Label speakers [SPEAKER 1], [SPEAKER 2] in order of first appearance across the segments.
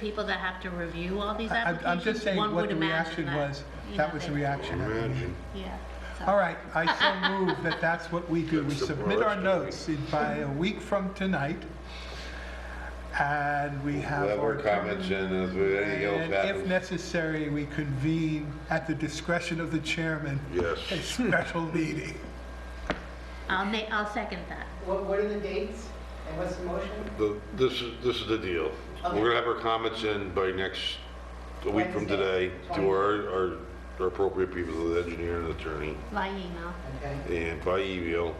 [SPEAKER 1] people that have to review all these
[SPEAKER 2] I- I'm just
[SPEAKER 1] applications,
[SPEAKER 2] saying
[SPEAKER 1] one
[SPEAKER 2] what
[SPEAKER 1] would
[SPEAKER 2] the
[SPEAKER 1] imagine
[SPEAKER 2] reaction
[SPEAKER 1] that.
[SPEAKER 2] was,
[SPEAKER 1] you
[SPEAKER 2] that
[SPEAKER 1] know,
[SPEAKER 2] was the
[SPEAKER 1] they-
[SPEAKER 2] reaction.
[SPEAKER 3] Imagine.
[SPEAKER 1] Yeah. so-
[SPEAKER 2] All right, I so move that that's what we do. We
[SPEAKER 3] That's the
[SPEAKER 2] submit our
[SPEAKER 3] worst.
[SPEAKER 2] notes in- by a week from tonight, and we have
[SPEAKER 3] We'll have
[SPEAKER 2] our...
[SPEAKER 3] our comments and if anything else
[SPEAKER 2] And if
[SPEAKER 3] happens.
[SPEAKER 2] necessary, we convene at the discretion of the chairman, a
[SPEAKER 3] Yes.
[SPEAKER 2] special meeting.
[SPEAKER 1] I'll ma, I'll second that.
[SPEAKER 4] What, what are the dates and what's the motion?
[SPEAKER 3] The- This is, this is the deal.
[SPEAKER 4] Okay.
[SPEAKER 3] We're gonna have our comments in by next, a week from today to our, our- our appropriate people, the engineer and attorney,
[SPEAKER 1] By email.
[SPEAKER 4] Okay,
[SPEAKER 3] and by email.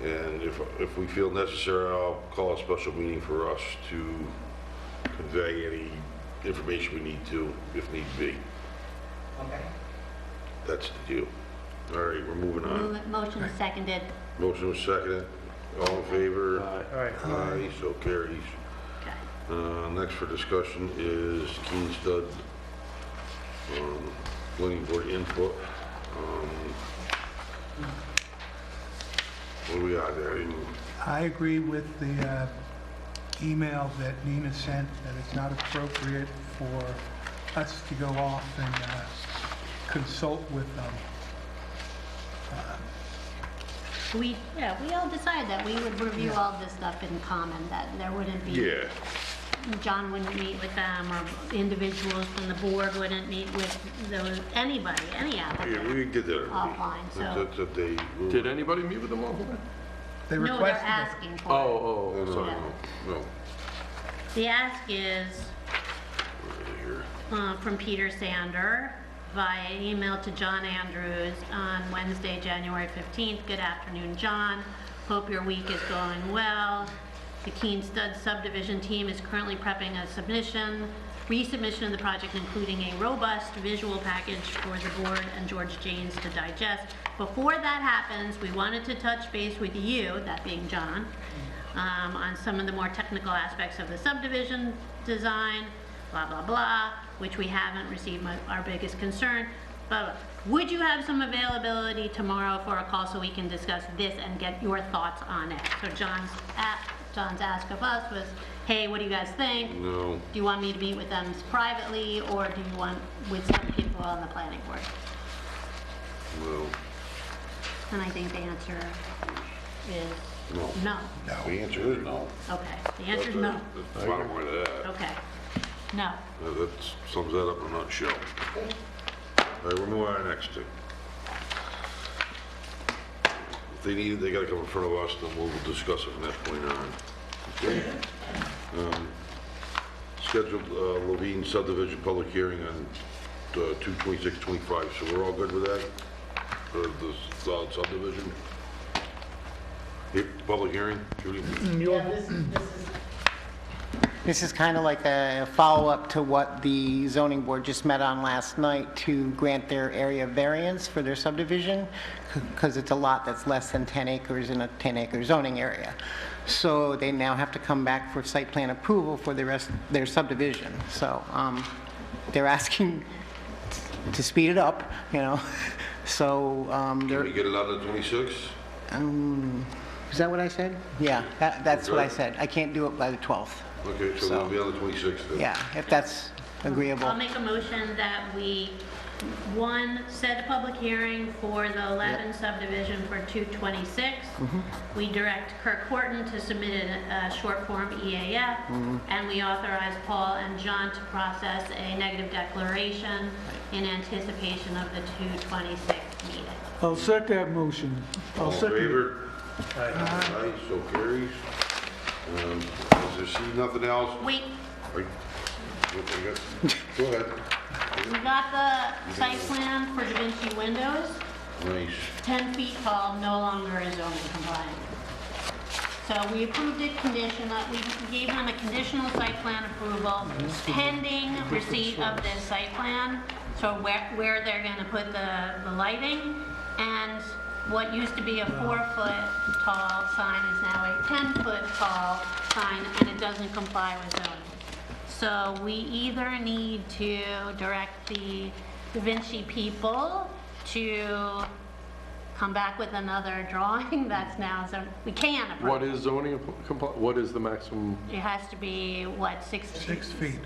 [SPEAKER 3] And if, if we feel necessary, I'll call a special meeting for us to convey any information we need to, if need be.
[SPEAKER 4] okay.
[SPEAKER 3] That's the deal. All right, we're moving on.
[SPEAKER 1] Move- Motion seconded.
[SPEAKER 3] Motion was seconded. All in favor?
[SPEAKER 5] Aye.
[SPEAKER 3] Aye, so carries.
[SPEAKER 1] Okay.
[SPEAKER 3] Uh, Next for discussion is Keen Stud, um, planning board input. Um, What do we got there? Any-
[SPEAKER 2] I agree with the uh, email that Nina sent, that it's not appropriate for us to go off and uh, consult with them.
[SPEAKER 1] We, yeah, we all decided that we would review all this stuff in common, that there wouldn't be.
[SPEAKER 3] Yeah,
[SPEAKER 1] John wouldn't meet with them, or individuals from the board wouldn't meet with those, anybody, any
[SPEAKER 3] yeah,
[SPEAKER 1] applicant.
[SPEAKER 3] we did that. already.
[SPEAKER 1] Offline, so-
[SPEAKER 3] That's- That they.
[SPEAKER 5] Did anybody meet with them all?
[SPEAKER 2] They
[SPEAKER 1] No, they're
[SPEAKER 2] requested it.
[SPEAKER 1] asking for it.
[SPEAKER 5] Oh, oh,
[SPEAKER 3] No,
[SPEAKER 5] oh,
[SPEAKER 3] no,
[SPEAKER 5] sorry.
[SPEAKER 3] no, no.
[SPEAKER 1] The ask is
[SPEAKER 3] Right here.
[SPEAKER 1] uh, from Peter Sander via email to John Andrews on Wednesday, January 15th. Good afternoon, John. Hope your week is going well. The Keen Stud subdivision team is currently prepping a submission, resubmission of the project, including a robust visual package for the board and George Janes to digest. Before that happens, we wanted to touch base with you, that being John, um, on some of the more technical aspects of the subdivision design, blah, blah, blah, which we haven't received my- our biggest concern, blah, blah. Would you have some availability tomorrow for a call so we can discuss this and get your thoughts on it? So John's, a- John's ask of us was, hey, what do you guys think?
[SPEAKER 3] No,
[SPEAKER 1] Do you want me to meet with them privately, or do you want with some people on the planning board?
[SPEAKER 3] no,
[SPEAKER 1] And I think the answer is
[SPEAKER 3] no.
[SPEAKER 1] no.
[SPEAKER 3] The answer is no.
[SPEAKER 1] Okay, the answer is no.
[SPEAKER 3] That's the Bottom line of that.
[SPEAKER 1] Okay, no.
[SPEAKER 3] That that sums that up in a nutshell. All right, we'll move on to our next thing. If they need, they gotta come in front of us, then we'll discuss it from that point on. Okay? Um, Scheduled uh, Levine subdivision public hearing on uh, 2/26/25, so we're all good with that? For the solid subdivision? Here, Public hearing, Judy?
[SPEAKER 6] Mm,
[SPEAKER 4] Yeah, this is, this is,
[SPEAKER 6] This is kind of like a follow-up to what the zoning board just met on last night to grant their area variance for their subdivision, because it's a lot that's less than 10 acres in a 10-acre zoning area. So they now have to come back for site plan approval for the rest, their subdivision. So um, they're asking to speed it up, you know? So um,
[SPEAKER 3] Can
[SPEAKER 6] they're,
[SPEAKER 3] we get it out of 26?
[SPEAKER 6] Um, is that what I said? Yeah, that- that's what I
[SPEAKER 3] Okay.
[SPEAKER 6] said. I can't do it by the 12th.
[SPEAKER 3] Okay, so we'll be on the 26th then.
[SPEAKER 6] Yeah, if that's agreeable.
[SPEAKER 1] I'll make a motion that we, one, set a public hearing for the 11 subdivision for 226. We direct Kirk Horton to submit a a short form EAF, and we authorize Paul and John to process a negative declaration in anticipation of the 226 meeting.
[SPEAKER 7] I'll second that motion.
[SPEAKER 3] All
[SPEAKER 7] I'll
[SPEAKER 3] in
[SPEAKER 7] second.
[SPEAKER 3] favor? Aye, so carries. Um, Is there see nothing else?
[SPEAKER 1] Wait,
[SPEAKER 3] Are you- what we got? Go ahead.
[SPEAKER 1] we got the site plan for Da Vinci Windows.
[SPEAKER 3] Nice.
[SPEAKER 1] 10 feet tall no longer is zoning compliant. So we approved it conditional, we gave them a conditional site plan approval pending receipt of this site plan. So where, where they're gonna put the, the lighting and what used to be a four-foot tall sign is now a 10-foot tall sign and it doesn't comply with zoning. So we either need to direct the Da Vinci people to come back with another drawing that's now, so we can approve.
[SPEAKER 5] What is zoning, compli- what is the maximum?
[SPEAKER 1] It has to be, what, six?
[SPEAKER 2] Six feet.